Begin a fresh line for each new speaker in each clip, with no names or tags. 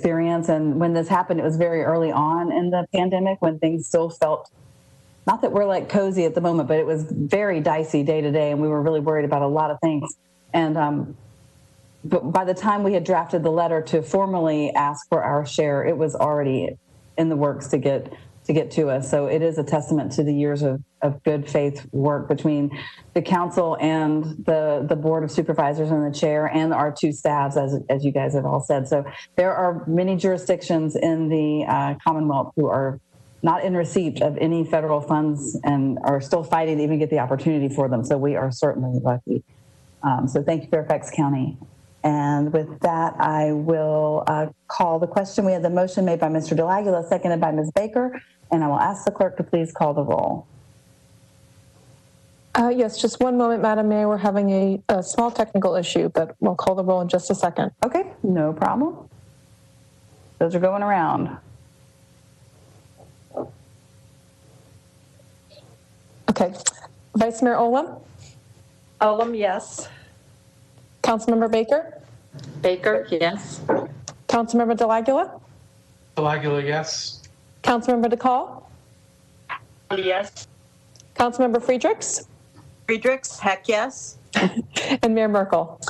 experience. And when this happened, it was very early on in the pandemic when things still felt not that we're like cozy at the moment, but it was very dicey day to day, and we were really worried about a lot of things. And um, but by the time we had drafted the letter to formally ask for our share, it was already in the works to get to get to us. So it is a testament to the years of, of good faith work between the council and the the board of supervisors and the chair and our two staffs, as as you guys have all said. So there are many jurisdictions in the uh, Commonwealth who are not in receipt of any federal funds and are still fighting to even get the opportunity for them. So we are certainly lucky. Um, so thank you, Fairfax County. And with that, I will uh, call the question. We had the motion made by Mr. Delagula, seconded by Ms. Baker, and I will ask the clerk to please call the roll.
Uh, Yes, just one moment, Madam Mayor. We're having a, a small technical issue, but we'll call the roll in just a second.
Okay, no problem. Those are going around.
Okay. Vice Mayor Olem,
Olem, yes.
Councilmember Baker,
Baker, yes.
Councilmember Delagula,
Delagula, yes.
Councilmember DeCall,
Yes.
Councilmember Friedrichs,
Friedrichs, heck yes.
and Mayor Merkel.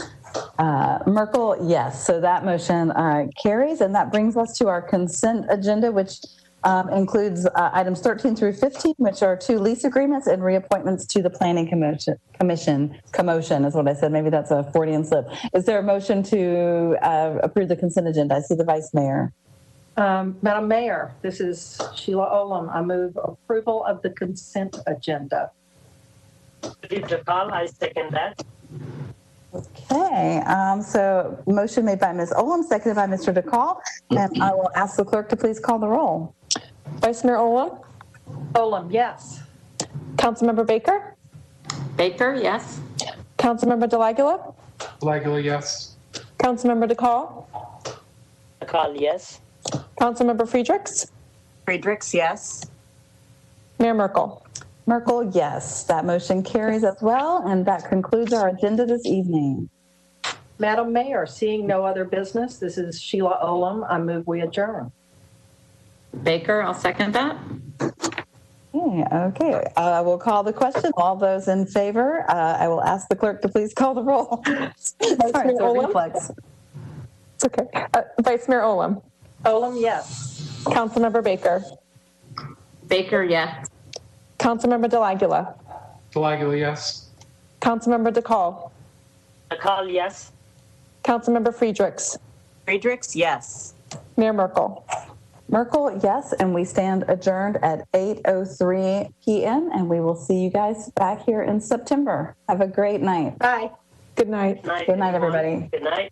Uh, Merkel, yes. So that motion uh, carries, and that brings us to our consent agenda, which um, includes uh, items 13 through 15, which are two lease agreements and reappointments to the Planning Commotion- Commission. Commotion is what I said. Maybe that's a Freudian slip. Is there a motion to uh, approve the consent agenda? I see the Vice Mayor.
Um, Madam Mayor, this is Sheila Olem. I move approval of the consent agenda.
Give the call, I second that.
Okay, um, so motion made by Ms. Olam, seconded by Mr. DeCall, and I will ask the clerk to please call the roll.
Vice Mayor Olem,
Olem, yes.
Councilmember Baker,
Baker, yes.
Councilmember Delagula,
Delagula, yes.
Councilmember DeCall,
The call, yes.
Councilmember Friedrichs,
Friedrichs, yes.
Mayor Merkel.
Merkel, yes. That motion carries as well, and that concludes our agenda this evening.
Madam Mayor, seeing no other business, this is Sheila Olem. I move we adjourn.
Baker, I'll second that.
Okay, okay. Uh, I will call the question. All those in favor, uh, I will ask the clerk to please call the roll. Sorry, it's a
Olem?
reflex.
It's okay. Uh, Vice Mayor Olem,
Olem, yes.
Councilmember Baker,
Baker, yes.
Councilmember Delagula,
Delagula, yes.
Councilmember DeCall,
The call, yes.
Councilmember Friedrichs,
Friedrichs, yes.
Mayor Merkel.
Merkel, yes, and we stand adjourned at 8:03 PM, and we will see you guys back here in September. Have a great night.
Bye.
Good night.
Good night, everybody.
Good night.